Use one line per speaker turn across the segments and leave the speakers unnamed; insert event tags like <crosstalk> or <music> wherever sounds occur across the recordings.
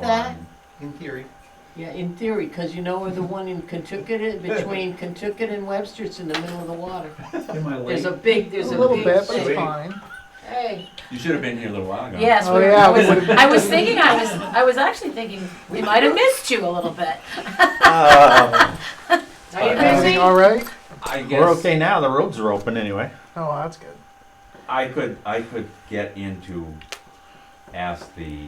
that?
line, In theory,
Yeah, in theory, because you know where the one in Kentucky, between Kentucky and Webster, it's in the middle of the water.
Am I
There's
late?
a big, there's
A
a
little
big.
bit, but
thing.
it's fine.
Hey,
You should have been here a little while ago.
Yes,
Oh,
we
yeah,
I
we
was, <laughs>
would've-
I was thinking, I was, I was actually thinking, we might have missed you a little bit.
<laughs> are you
Uh,
busy?
Everything Amazing.
all right?
I guess
We're okay now, the roads are open anyway.
Oh, that's good.
I could I could get into ask the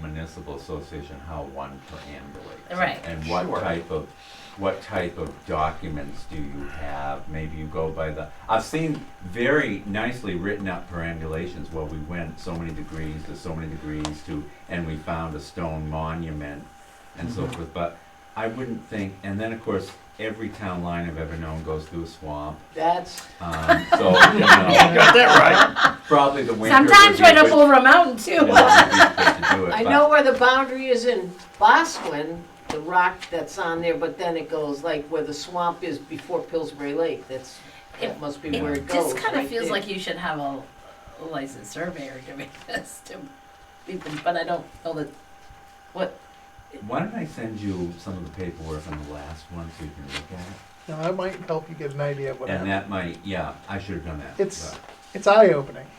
municipal association how one perambulates.
Right.
And what
Sure.
type of what type of documents do you have? Maybe you go by the I've seen very nicely written up perambulations where we went so many degrees to so many degrees to and we found a stone monument and so forth. But I wouldn't think and then of course every town line I've ever known goes through a swamp.
That's,
Um, so you know,
Got that
Probably the winter.
Sometimes right up over a mountain too. <laughs>
I know where the boundary is in Bosquen, the rock that's on there, but then it goes like where the swamp is before Pillsbury Lake, that's, that must be where it
It
goes.
just kind of
right
feels
there.
like you should have a licensed surveyor doing <laughs> this to people, but I don't know that,
<laughs>
what,
Why don't I send you some of the paperwork on the last one so you can look at
Now, that might help you get an idea of what
it? And
happened.
that might, yeah, I should have done that.
It's-
but
It's eye opening.
right.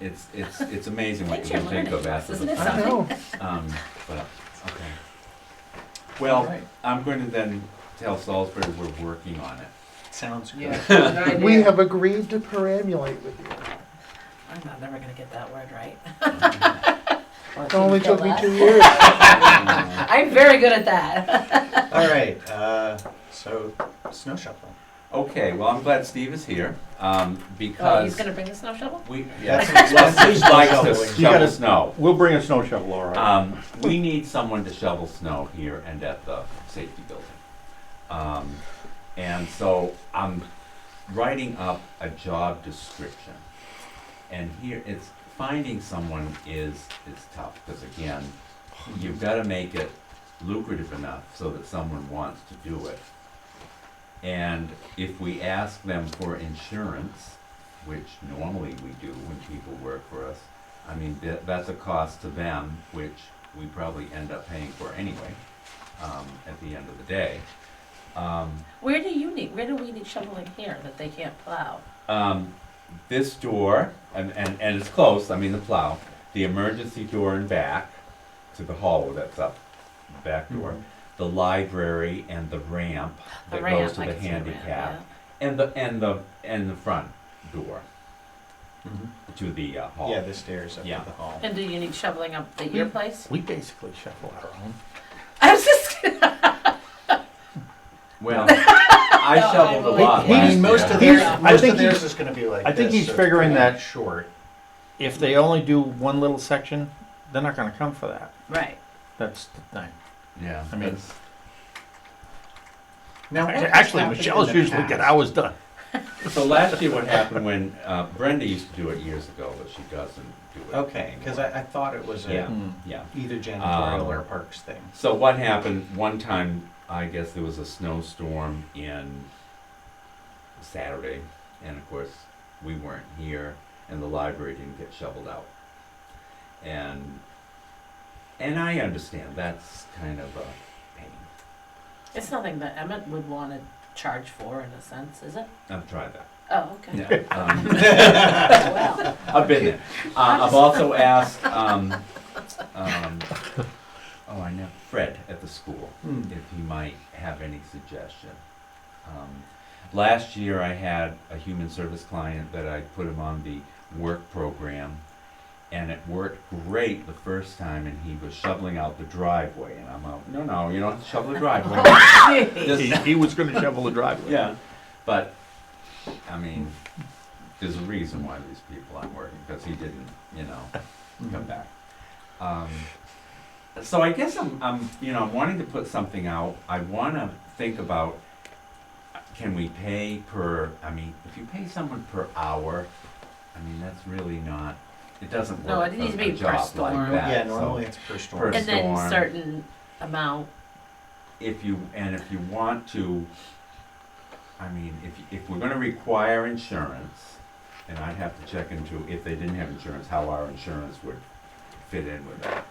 It's, it's, it's amazing what
Things
you can
you're
think of
learning,
after
isn't
the
it?
fact.
I
Something.
know.
Um, but, okay. Well,
Alright.
I'm going to then tell Salisbury we're working on
<laughs>
it.
Sounds good.
Yeah. good idea.
We have agreed to perambulate with you.
I'm not never gonna get that word
<laughs>
right.
It only took me two years.
Uh,
I'm very good at that. <laughs>
All right, uh, so snow shoveling.
Okay, well, I'm glad Steve is here, um,
Oh, he's
because
gonna bring the snow shovel?
we,
That's
yes,
an expensive
Steve likes
shoveling.
to
You
shovel
gotta-
snow.
We'll bring a snow shovel, all right.
Um, we need someone to shovel snow here and at the safety building. Um, and so I'm writing up a job description. And here, it's, finding someone is, is tough, because again, you've gotta make it lucrative enough so that someone wants to do it. And if we ask them for insurance, which normally we do when people work for us, I mean, that, that's a cost to them, which we probably end up paying for anyway, um, at the end of the day. Um,
Where do you need, where do we need shoveling here that they can't plow?
um, this door, and, and, and it's close, I mean, the plow, the emergency door and back to the hallway that's up, back door, the library and the ramp
Mm-hmm. The
that
ramp,
goes to
I
the
can see the ramp,
handicap, and the, and the, and the front door
Mhm.
Mm-hmm.
to the uh, hall.
Yeah, the stairs up to
Yeah.
the hall.
And do you need shoveling up at your place?
We basically shovel our own.
Mm-hmm. I was <laughs> just, <laughs>
Well, I shoveled a
I'm-
lot
He- he-
last
most
year.
of Here's- theirs-
I
Most
think
of theirs
he-
is gonna be like
I think
this,
he's
so-
figuring that
Short.
if they only do one little section, they're not gonna come for that.
right.
That's the thing.
Yeah,
I mean-
that's-
Now, what has
Actually,
happened in
Michelle's
the
usually
past?
get hours done.
so last year what happened when, uh, Brenda used to do it years ago, but she doesn't do it.
Okay, because I, I thought it was
Yeah.
a
Yeah,
either janitorial
Um,
or parks thing.
so what happened, one time, I guess there was a snowstorm in Saturday, and of course, we weren't here, and the library didn't get shoveled out. And, and I understand, that's kind of a pain.
It's nothing that Emmett would want to charge for in a sense, is it?
I've tried that,
Oh, okay. Oh,
yeah. Um,
Well,
I've been there. Uh, I've also asked, um, um, oh, I know, Fred at the school,
Hmm.
if he might have any suggestion. Um, last year, I had a human service client that I put him on the work program, and it worked great the first time, and he was shoveling out the driveway, and I'm out, no, no, you don't have to shovel the driveway. Just-
He, he was gonna shovel the driveway.
yeah, but, I mean, there's a reason why these people aren't working, because he didn't, you know,
<laughs>
come back. Um, so I guess I'm, I'm, you know, I'm wanting to put something out, I wanna think about, uh, can we pay per, I mean, if you pay someone per hour, I mean, that's really not, it doesn't
No,
work
it
for
needs to be
a
per
job like
storm.
Yeah,
that, so,
normally it's per
per
store.
and then
storm.
certain amount.
if you, and if you want to, I mean, if, if we're gonna require insurance, and I'd have to check into if they didn't have insurance, how our insurance would fit in with that.